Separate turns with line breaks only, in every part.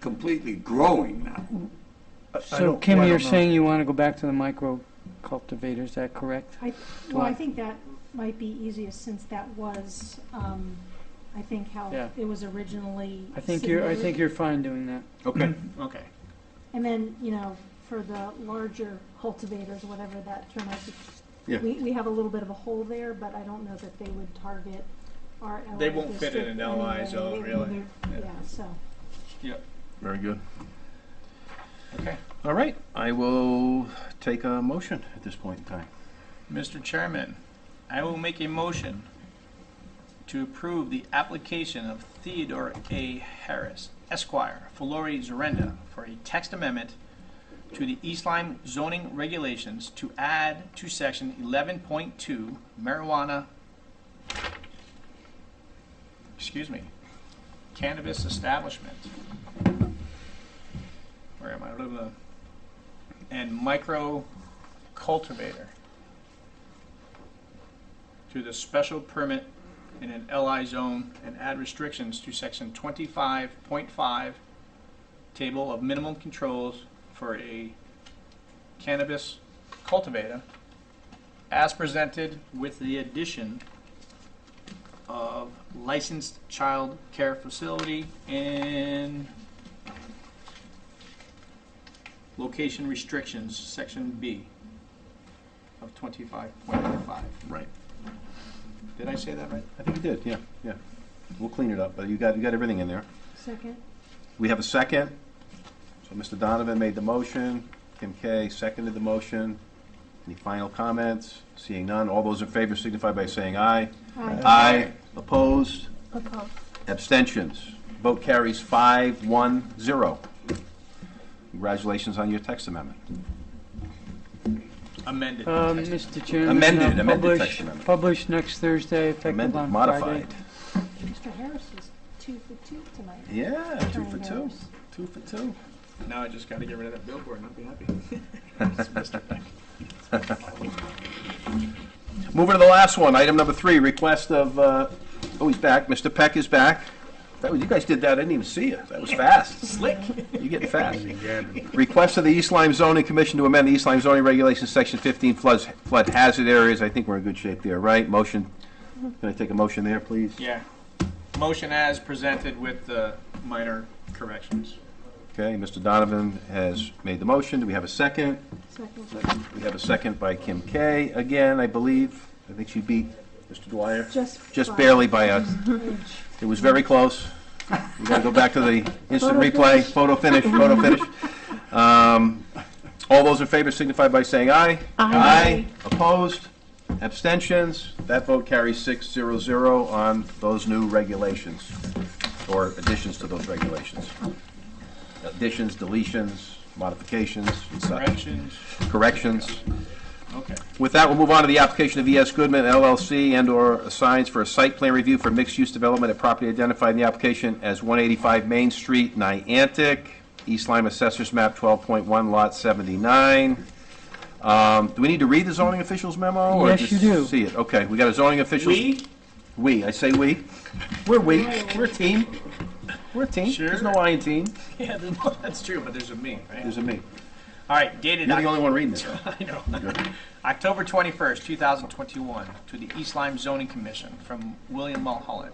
completely growing now.
I
So
don't-
Kim,
I
you're
don't know.
saying you want to go back to the micro cultivator, is that correct?
I, well, I
Why?
think that might be easiest since that was, um, I think how
Yeah.
it was originally.
I think you're, I
submitted.
think you're fine doing that.
Okay.
Okay.
And then, you know, for the larger cultivators, whatever that term is.
Yeah.
We, we have a little bit of a hole there, but I don't know that they would target our LI
They won't fit in
district
an LI
anyway.
zone,
They-
really.
they're-
Yeah.
Yeah, so.
Very good. Okay.
All right, I will take a motion at this point in time.
Mr. Chairman, I will make a motion to approve the application of Theodore A. Harris Esquire, Filori Zarenda, for a text amendment to the East Lyme zoning regulations to add to section eleven point two marijuana, excuse me, cannabis establishment. Where am I? Blah, blah. And micro cultivator to the special permit in an LI zone and add restrictions to section twenty-five point five, table of minimum controls for a cannabis cultivator as presented with the addition of licensed child care facility and location restrictions, section B of twenty-five point five.
Right.
Did I say that right?
I think we did, yeah, yeah. We'll clean it up, but you got, you got everything in there.
Second,
We have a second. So Mr. Donovan made the motion, Kim Kay seconded the motion. Any final comments? Seeing none, all those in favor signify by saying aye.
aye.
Aye. Opposed?
Opposed.
Abstentions? Vote carries five, one, zero. Congratulations on your text amendment.
Amended.
Um,
text.
Mr. Chairman.
Amended,
uh,
amended
publish-
text amendment.
Published next Thursday, effective
Amended,
on Friday.
modified.
Mr. Harris is two for two tonight.
Yeah, two
Attorney
for
Oh,
two.
Harris.
Two for two.
Now I just gotta get rid of that billboard and I'll be happy.
Moving to the last one, item number three, request of, uh, oh, he's back, Mr. Peck is back. That was, you guys did that, I didn't even see you, that was fast.
Slick.
You're getting fast. Request of the East Lyme Zoning Commission to amend the East Lyme Zoning Regulations, Section 15 floods, flood hazard areas. I think we're in good shape there, right? Motion, can I take a motion there, please?
Yeah. Motion as presented with the minor corrections.
Okay, Mr. Donovan has made the motion. Do we have a second?
Second,
We have a second by Kim Kay, again, I believe. I think she beat Mr. Dwyer.
just.
Just
five
barely by a
inch.
It was very close. We gotta go back to the instant replay, photo finish, photo finish. Um, All those in favor signify by saying aye. Aye. Opposed? Abstentions? That vote carries six zero zero on those new regulations, or additions to those regulations. Additions, deletions, modifications, and such,
Corrections,
corrections.
Uh, okay.
With that, we'll move on to the application of ES Goodman LLC and/or signs for a site plan review for mixed-use development at property identified in the application as 185 Main Street, Niantic, East Lyme Assessors Map 12.1, Lot 79. Um, Do we need to read the zoning officials memo? or
Yes, you
just
do.
See it, okay, we got a zoning officials.
We,
We, I say we. We're we, we're a team. We're a team,
Sure.
there's no I in team,
yeah, there's- that's true, but there's a me, right?
there's a me.
All right, dated.
You're the only one reading it. though.
I know. October 21st, 2021, to the East Lyme Zoning Commission from William Mulholland.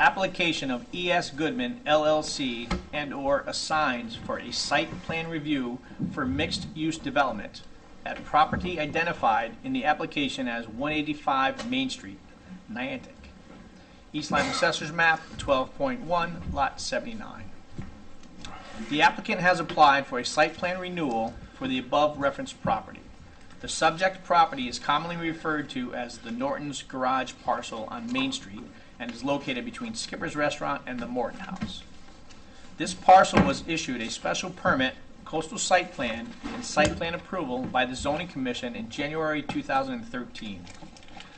Application of E.S. Goodman LLC and/or assigns for a site plan review for mixed-use development at property identified in the application as 185 Main Street, Niantic. East Lyme Assessor's Map 12.1, Lot 79. The applicant has applied for a site plan renewal for the above referenced property. The subject property is commonly referred to as the Norton's Garage Parcel on Main Street and is located between Skipper's Restaurant and the Morton House. This parcel was issued a special permit, coastal site plan, and site plan approval by the zoning commission in January 2013.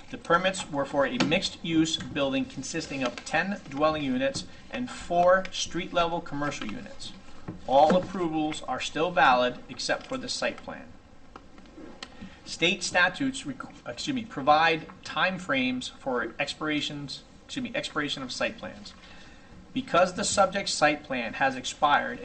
The permits were for a mixed-use building consisting of 10 dwelling units and four street-level commercial units. All approvals are still valid except for the site plan. State statutes, requ- excuse me, provide timeframes for expirations, excuse me, expiration of site plans. Because the subject site plan has expired, a